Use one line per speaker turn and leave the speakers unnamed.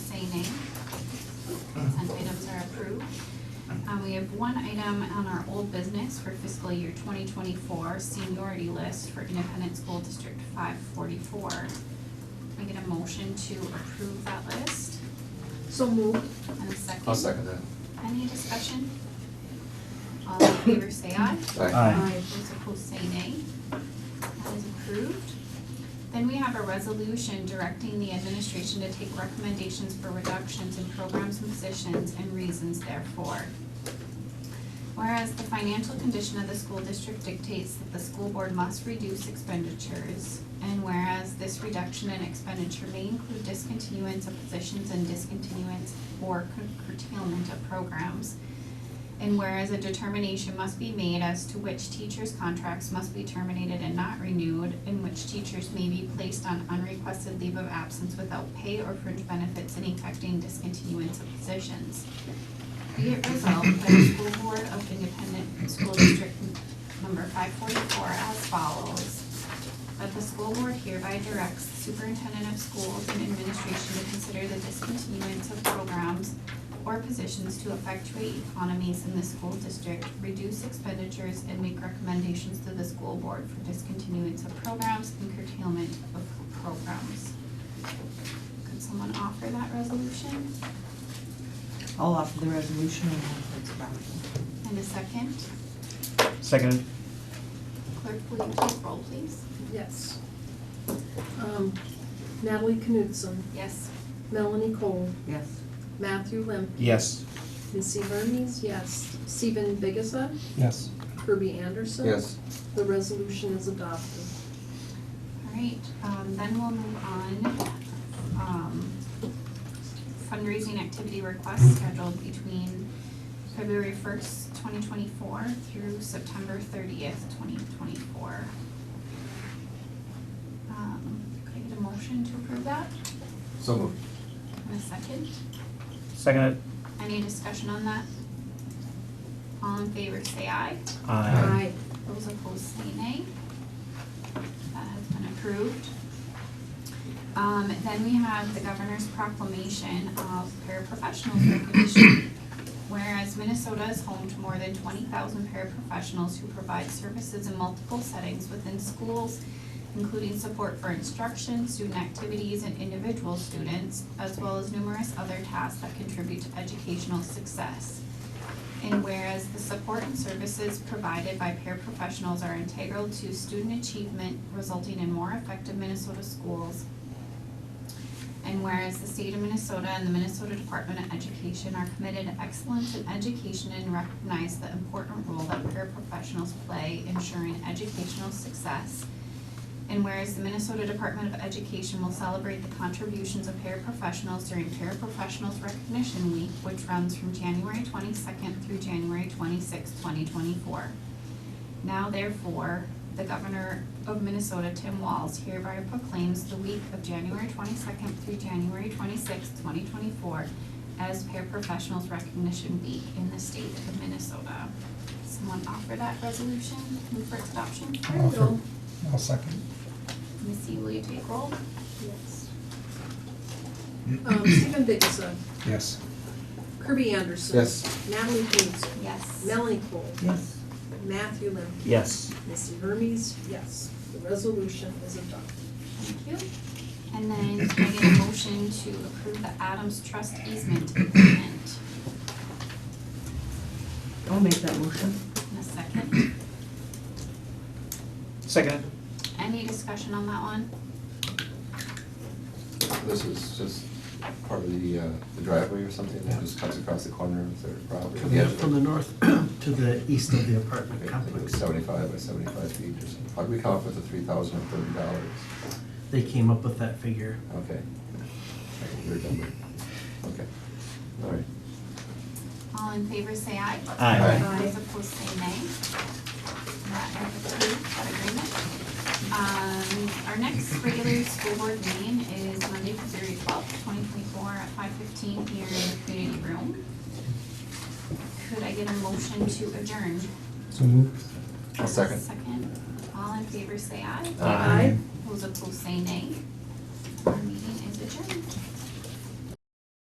everybody name. Consent items are approved. Um, we have one item on our old business for fiscal year twenty twenty-four seniority list for Independent School District five forty-four. Can I get a motion to approve that list
So moved.
and a 2nd
I'll second that.
Any discussion? All in favor say aye.
Aye.
Those opposed say nay. That is approved. Then we have a resolution directing the administration to take recommendations for reductions in programs and positions and reasons therefore. Whereas the financial condition of the school district dictates that the school board must reduce expenditures, and whereas this reduction in expenditure may include discontinuance of positions and discontinuance or curtailment of programs, and whereas a determination must be made as to which teachers' contracts must be terminated and not renewed, and which teachers may be placed on unrequested leave of absence without pay or fringe benefits and effecting discontinuance of positions. Be it resolved by the School Board of Independent School District Number five forty-four as follows. That the school board hereby directs superintendent of schools and administration to consider the discontinuance of programs or positions to effectuate economies in the school district, reduce expenditures, and make recommendations to the school board for discontinuance of programs and curtailment of programs. Could someone offer that resolution?
I'll offer the resolution and have it back.
And a second,
Seconded.
clerk, will you take roll, please?
Yes. Um, Natalie Knudsen,
Yes.
Melanie Cole,
Yes.
Matthew Limp,
Yes.
Missy Hermes, yes. Stephen Biggessa,
Yes.
Kirby Anderson.
Yes,
The resolution is adopted.
All right, um, then we'll move on, um, fundraising activity requests scheduled between February first, twenty twenty-four through September thirtieth, twenty twenty-four. Um, could I get a motion to approve that
so moved.
in a second?
Seconded.
Any discussion on that? All in favor, say aye.
Aye.
Those opposed say nay. That has been approved. Um, then we have the governor's proclamation of paraprofessionals recognition. Whereas Minnesota is home to more than twenty thousand paraprofessionals who provide services in multiple settings within schools, including support for instruction, student activities, and individual students, as well as numerous other tasks that contribute to educational success. And whereas the support and services provided by paraprofessionals are integral to student achievement resulting in more effective Minnesota schools. And whereas the state of Minnesota and the Minnesota Department of Education are committed to excellence in education and recognize the important role that paraprofessionals play ensuring educational success. And whereas the Minnesota Department of Education will celebrate the contributions of paraprofessionals during Paraprofessionals Recognition Week, which runs from January twenty-second through January twenty-sixth, twenty twenty-four. Now therefore, the Governor of Minnesota, Tim Walz, hereby proclaims the week of January twenty-second through January twenty-sixth, twenty twenty-four as Paraprofessionals Recognition Week in the state of Minnesota. Someone offer that resolution, move for its adoption?
There you go.
I'll second.
Missy, will you take roll?
Yes. Um, Stephen Biggessa,
Yes.
Kirby Anderson.
Yes,
Natalie Knudsen,
Yes.
Melanie Cole,
Yes.
Matthew Limp,
Yes.
Missy Hermes, yes. The resolution is adopted.
Thank you. And then can I get a motion to approve the Adams Trust easement agreement
I'll make that motion.
in a second?
Seconded.
Any discussion on that one?
this is just part of the, uh, the driveway or something that just cuts across the corner of their property.
Coming up from the north to the east of the apartment
I think it was
complex.
Seventy-five by seventy-five feet or something. How did we come up with the three thousand and thirty dollars?
They came up with that figure.
Okay. Like a Weird number. Okay, all right.
All in favor say aye.
Aye.
Aye. Those opposed say nay. That is approved, that agreement. Um, our next regular school board meeting is Monday, February twelfth, twenty twenty-four at five fifteen here in the community room. Could I get a motion to adjourn?
So moved.
I'll second.
Second. All in favor say aye.
Aye.
Aye.
Those opposed say nay. Our meeting is adjourned.